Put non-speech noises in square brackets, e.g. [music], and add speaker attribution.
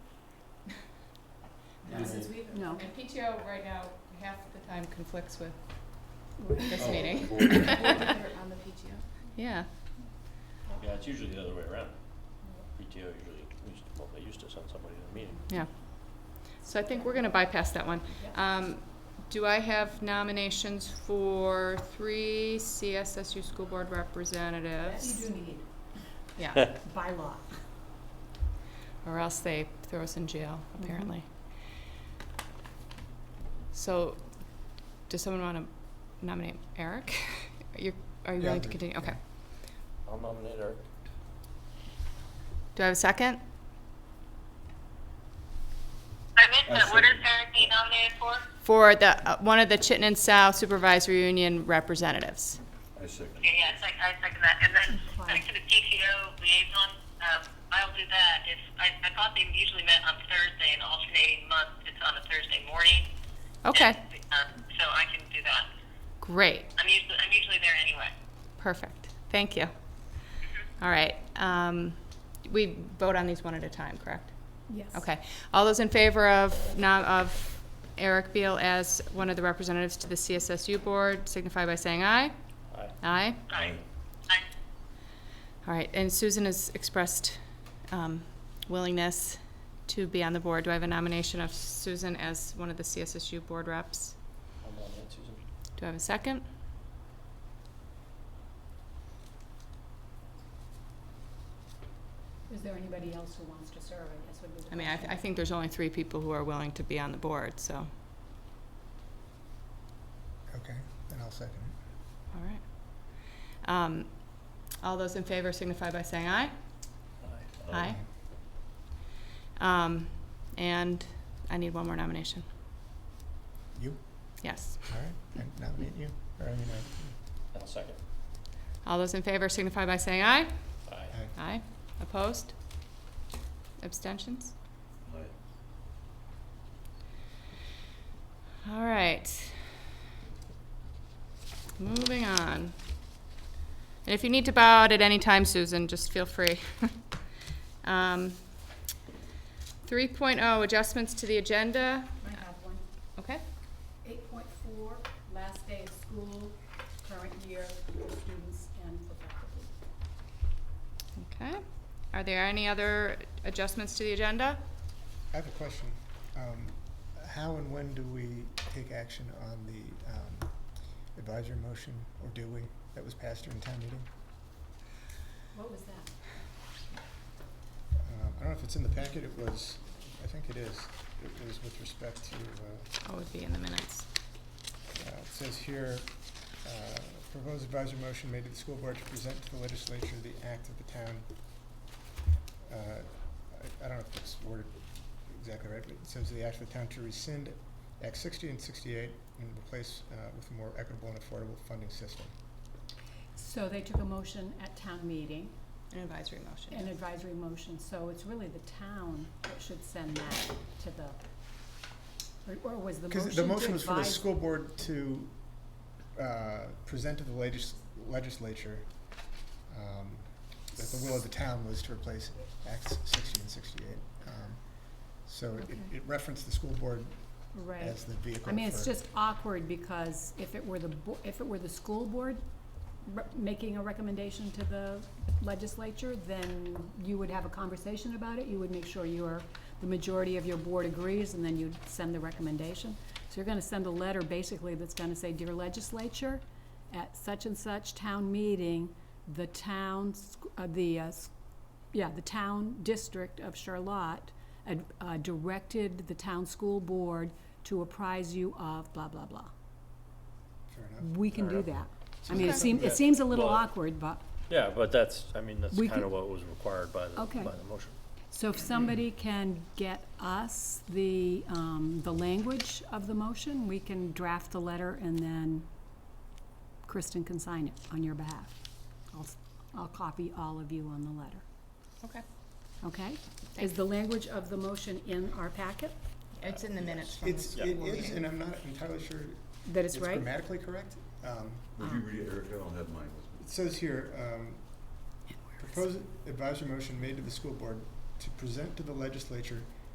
Speaker 1: No.
Speaker 2: And PTO right now, half the time conflicts with this
Speaker 3: Oh,
Speaker 2: meeting.
Speaker 3: board member.
Speaker 2: [laughs] on the PTO? Yeah,
Speaker 3: Yeah, it's usually the other way around. PTO usually, used well, they used to send somebody to the meeting.
Speaker 2: yeah. So I think we're gonna bypass that one. Um, do I have nominations for three CSSU school board representatives?
Speaker 1: You do need, [laughs]
Speaker 2: Yeah,
Speaker 1: by law.
Speaker 2: or else they throw us in jail, apparently. So, does someone wanna nominate Eric? [laughs] You're, are you
Speaker 4: Yeah,
Speaker 2: willing to
Speaker 4: I'll do it,
Speaker 2: continue? Okay.
Speaker 3: I'll nominate Eric.
Speaker 2: Do I have a second?
Speaker 5: I missed
Speaker 3: I
Speaker 5: that. What is
Speaker 3: see.
Speaker 5: Eric being nominated for?
Speaker 2: For the, uh, one of the Chittenden South Supervisory Union representatives.
Speaker 3: I second.
Speaker 5: Okay, yeah, I sec- I second that. And then
Speaker 1: Okay.
Speaker 5: back to the PTO liaison, um, I'll do that. If, I, I thought they usually met on Thursday and alternating month, it's on a Thursday morning.
Speaker 2: Okay,
Speaker 5: And, um, so I can do that.
Speaker 2: great,
Speaker 5: I'm usually, I'm usually there anyway.
Speaker 2: perfect, thank you. All right, um, we vote on these one at a time, correct?
Speaker 1: Yes.
Speaker 2: Okay, all those in favor of, nom- of Eric Beal as one of the representatives to the CSSU board signify by saying aye.
Speaker 3: Aye.
Speaker 2: Aye.
Speaker 5: Aye. Aye.
Speaker 2: All right, and Susan has expressed um, willingness to be on the board. Do I have a nomination of Susan as one of the CSSU board reps?
Speaker 3: I'll nominate Susan.
Speaker 2: Do I have a second?
Speaker 1: Is there anybody else who wants to serve, I guess would be the
Speaker 2: I mean, I,
Speaker 1: question.
Speaker 2: th- I think there's only three people who are willing to be on the board, so, all
Speaker 4: Okay, then I'll second it.
Speaker 2: right. Um, all those in favor signify by saying aye.
Speaker 3: Aye.
Speaker 2: Aye. Um, and I need one more nomination.
Speaker 4: You,
Speaker 2: Yes.
Speaker 4: all right, I nominate you, or I mean,
Speaker 3: I'll second.
Speaker 2: All those in favor signify by saying aye.
Speaker 3: Aye.
Speaker 4: I, I,
Speaker 2: Aye. Opposed? Abstentions? All right. Moving on. And if you need to bow out at any time, Susan, just feel free. [laughs] Um, 3.0, adjustments to the agenda.
Speaker 1: I have one.
Speaker 2: Okay,
Speaker 1: Eight point four, last day of school, current year, for students and for faculty.
Speaker 2: okay. Are there any other adjustments to the agenda?
Speaker 4: I have a question. Um, how and when do we take action on the, um, advisory motion, or do we, that was passed during town meeting?
Speaker 1: What was that?
Speaker 4: Um, I don't know if it's in the packet, it was, I think it is, it was with respect to, uh,
Speaker 2: Oh, it would be in the minutes.
Speaker 4: Uh, It says here, uh, proposed advisory motion made to the school board to present to the legislature the act of the town. Uh, I I don't know if it's worded exactly right, but it says the act of the town to rescind Act sixty and sixty-eight and replace uh, with a more equitable and affordable funding system.
Speaker 1: So they took a motion at town meeting,
Speaker 2: An advisory motion.
Speaker 1: an advisory motion, so it's really the town that should send that to the, or- or was the motion to
Speaker 4: Because
Speaker 1: advise?
Speaker 4: the motion was for the school board to uh, present to the legis- legislature um, that the will of the town was to replace Acts sixty and sixty-eight. Um, So it-
Speaker 1: Okay.
Speaker 4: it referenced the school board
Speaker 1: Right.
Speaker 4: as the vehicle
Speaker 1: I mean, it's
Speaker 4: for-
Speaker 1: just awkward because if it were the, bo- if it were the school board re- making a recommendation to the legislature, then you would have a conversation about it, you would make sure your, the majority of your board agrees, and then you'd send the recommendation. So you're gonna send a letter basically that's gonna say, dear legislature, at such and such town meeting, the town, sc- uh, the, uh, s- yeah, the town district of Charlotte ad- uh, directed the town school board to apprise you of blah, blah, blah.
Speaker 4: Fair enough.
Speaker 1: We can
Speaker 3: Fair
Speaker 1: do that. I mean, it
Speaker 2: Okay.
Speaker 1: seems,
Speaker 3: Yeah.
Speaker 1: it seems a little
Speaker 3: Well-
Speaker 1: awkward, but,
Speaker 3: Yeah, but that's, I mean, that's
Speaker 1: We
Speaker 3: kind
Speaker 1: could-
Speaker 3: of what was required by the,
Speaker 1: Okay.
Speaker 3: by the motion.
Speaker 1: so if somebody can get us the, um, the language of the motion, we can draft the letter and then Kristen can sign it on your behalf. I'll, s- I'll copy all of you on the letter,
Speaker 2: Okay.
Speaker 1: okay? Is the language of the motion in our packet?
Speaker 2: It's in the minutes from
Speaker 4: It's,
Speaker 2: this.
Speaker 4: it is, and I'm not entirely sure
Speaker 1: That
Speaker 4: it's
Speaker 1: it's right?
Speaker 4: grammatically correct. Um,
Speaker 6: Would you read it, Eric? I don't have mine with me.
Speaker 4: It says here, um, proposed advisory motion made to the school board to present to the legislature